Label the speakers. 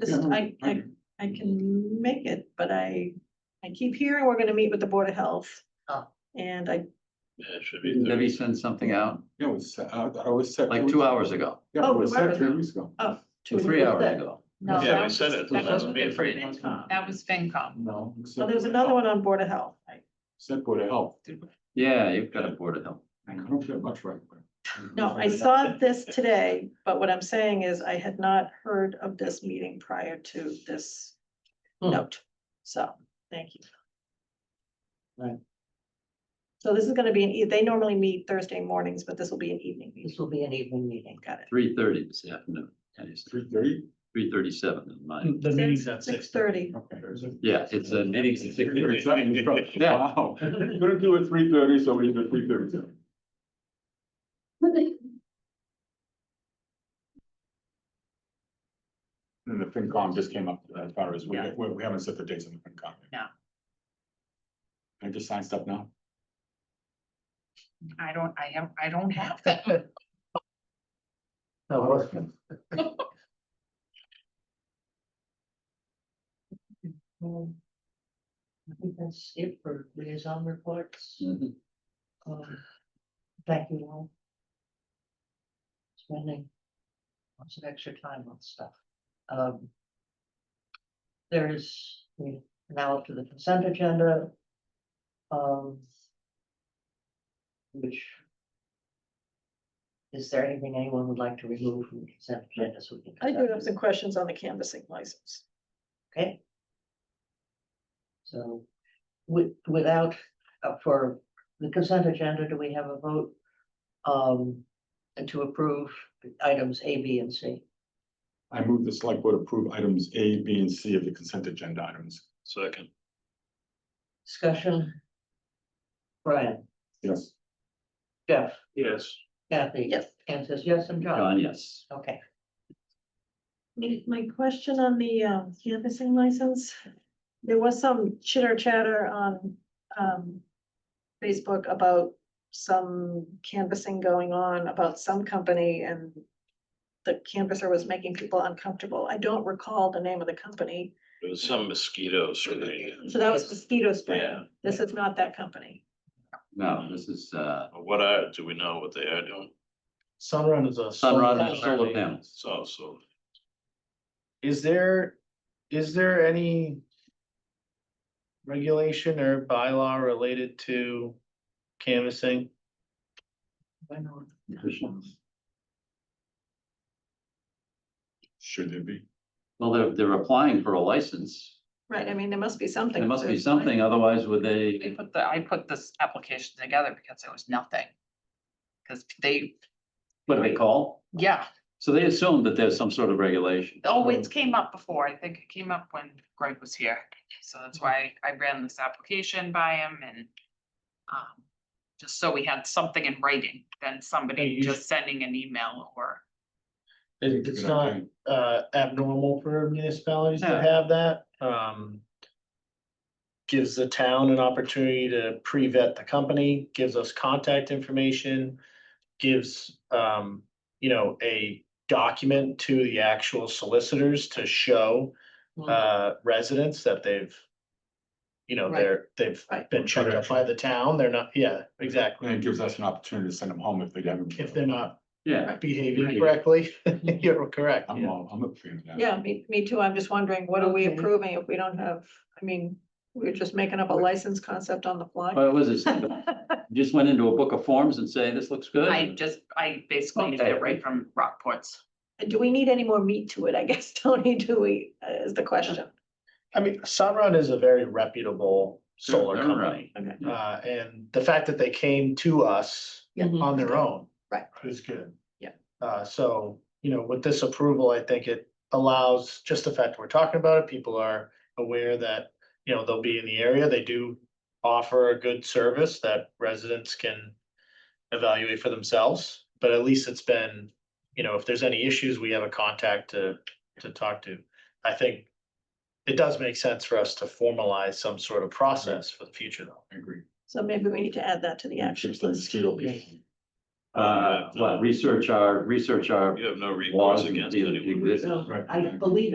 Speaker 1: Just, I, I, I can make it, but I, I keep hearing we're gonna meet with the Board of Health.
Speaker 2: Oh.
Speaker 1: And I,
Speaker 3: Yeah, it should be.
Speaker 4: Debbie
Speaker 3: Thursday.
Speaker 4: sent something out
Speaker 5: Yeah, it was, I, I was. set-
Speaker 4: like two hours ago,
Speaker 5: Yeah,
Speaker 1: Oh,
Speaker 5: it was
Speaker 1: remember
Speaker 5: set three
Speaker 1: now.
Speaker 5: weeks ago.
Speaker 1: oh.
Speaker 4: two, three hours ago.
Speaker 2: No,
Speaker 3: Yeah,
Speaker 2: that
Speaker 3: we
Speaker 2: was-
Speaker 3: said it.
Speaker 1: that
Speaker 3: that's
Speaker 1: was-
Speaker 3: me.
Speaker 2: that was FinCom.
Speaker 5: No. it was
Speaker 1: So
Speaker 5: set-
Speaker 1: Oh, there was uh, another one on Board of Health. I-
Speaker 5: Set Board of Health.
Speaker 4: Yeah, you've got a board of health.
Speaker 5: I don't get much right. away.
Speaker 1: No, I saw this today, but what I'm saying is I had not heard of this meeting prior to this
Speaker 2: Hmm.
Speaker 1: note. So, thank you.
Speaker 2: Right.
Speaker 1: So this is gonna be an, e- they normally meet Thursday mornings, but this will be an evening
Speaker 2: This
Speaker 1: meeting.
Speaker 2: will be an evening meeting.
Speaker 1: Got it.
Speaker 4: Three thirty this afternoon, that is
Speaker 5: Three thirty,
Speaker 4: three thirty-seven in
Speaker 3: Hmm.
Speaker 4: mine.
Speaker 6: The meeting's at
Speaker 1: Six
Speaker 6: six.
Speaker 1: thirty.
Speaker 5: okay.
Speaker 4: Yeah, it's a meeting's at six thirty. Yeah.
Speaker 5: Wow, couldn't do it three thirty, so we did three thirty seven. And the FinCom just came up as far as, we,
Speaker 2: Yeah.
Speaker 5: we we haven't set the dates on the FinCom. yet.
Speaker 2: No.
Speaker 5: Can I just sign stuff now?
Speaker 2: I don't, I have, I don't have that. Um, I think that's it for liaison reports.
Speaker 4: Mhm.
Speaker 2: Um, Thank you all. Spending lots of extra time on stuff. Um, There is, we now up to the consent agenda. Um. Which. Is there anything anyone would like to remove from the consent agenda? so we can
Speaker 1: I do
Speaker 2: conduct
Speaker 1: have some questions on the canvassing license.
Speaker 2: Okay. So with, without, uh, for the consent agenda, do we have a vote? Um, and to approve items A, B, and C?
Speaker 5: I move the select board approve items A, B, and C of the consent agenda items.
Speaker 3: Second,
Speaker 2: Discussion? Brian,
Speaker 5: Yes.
Speaker 2: Jeff,
Speaker 3: yes.
Speaker 2: Kathy?
Speaker 1: Yes.
Speaker 2: Anne says yes, and John?
Speaker 4: John, yes.
Speaker 2: Okay,
Speaker 1: My, my question on the um, canvassing license, there was some chitter chatter on um, Facebook about some canvassing going on about some company and the canvasser was making people uncomfortable. I don't recall the name of the company.
Speaker 3: There was some mosquitoes. related.
Speaker 1: So that was mosquito spray.
Speaker 3: Yeah.
Speaker 1: This is not that company.
Speaker 4: No, this is uh
Speaker 3: What are, do we know what they are doing?
Speaker 6: Sunrun is a.
Speaker 4: Sunrun solar panels.
Speaker 3: It's also,
Speaker 6: Is there, is there any? Regulation or bylaw related to canvassing?
Speaker 2: I know.
Speaker 5: Should it be?
Speaker 4: Well, they're they're applying for a license.
Speaker 1: Right, I mean, there must be something.
Speaker 4: There must be something, otherwise would
Speaker 7: They
Speaker 4: they,
Speaker 7: put the, I put this application together because there was nothing. Cause they,
Speaker 4: what do they call?
Speaker 7: yeah,
Speaker 4: So they assume that there's some sort of regulation.
Speaker 7: oh,
Speaker 6: Mm.
Speaker 7: it came up before, I think it came up when Greg was here, so that's
Speaker 6: Mm-hmm.
Speaker 7: why I ran this application by him and. Um, just so we had something in writing than
Speaker 6: Hey,
Speaker 7: somebody
Speaker 6: you
Speaker 7: just sending an email or.
Speaker 6: It- It's not uh abnormal for municipalities to
Speaker 4: No.
Speaker 6: have that, um. Gives the town an opportunity to pre-vet the company, gives us contact information. Gives um, you know, a document to the actual solicitors to show
Speaker 2: Mm-hmm.
Speaker 6: uh residents that they've. You know,
Speaker 2: Right.
Speaker 6: they're, they've
Speaker 1: Right.
Speaker 6: been checked up by the town, they're not, yeah, exactly,
Speaker 5: And it gives us an opportunity to send them home if they haven't.
Speaker 6: if they're not
Speaker 4: Yeah,
Speaker 6: behaving correctly, you're correct.
Speaker 5: I'm all, I'm a fan of that.
Speaker 1: Yeah, me, me too. I'm just wondering, what are we
Speaker 2: Okay.
Speaker 1: approving if we don't have, I mean, we're just making up a license concept on the fly?
Speaker 4: but was it, just went into a book of forms and say, this looks good?
Speaker 7: I just, I basically did
Speaker 4: Okay.
Speaker 7: it right from Rockport's.
Speaker 1: And Do we need any more meat to it, I guess, Tony, do we, uh, is the question.
Speaker 6: I mean, Sunrun is a very reputable
Speaker 4: Sure,
Speaker 6: solar
Speaker 4: they're
Speaker 6: company.
Speaker 1: Okay.
Speaker 4: right.
Speaker 6: Uh, and the fact that they came to us
Speaker 1: Yeah.
Speaker 6: on their own.
Speaker 1: Mm-hmm. Right.
Speaker 6: Is good.
Speaker 1: Yeah.
Speaker 6: Uh, so, you know, with this approval, I think it allows, just the fact we're talking about it, people are aware that, you know, they'll be in the area. They do offer a good service that residents can evaluate for themselves, but at least it's been, you know, if there's any issues, we have a contact to, to talk to. I think it does make sense for us to formalize some sort of process for the future though.
Speaker 5: I agree.
Speaker 1: So maybe we need to add that to the action.
Speaker 5: Ships like mosquito.
Speaker 4: Uh, what, research our, research our
Speaker 3: you have no recourse
Speaker 4: laws and
Speaker 3: against
Speaker 4: deal-
Speaker 3: anyone.
Speaker 4: exist.
Speaker 2: I believe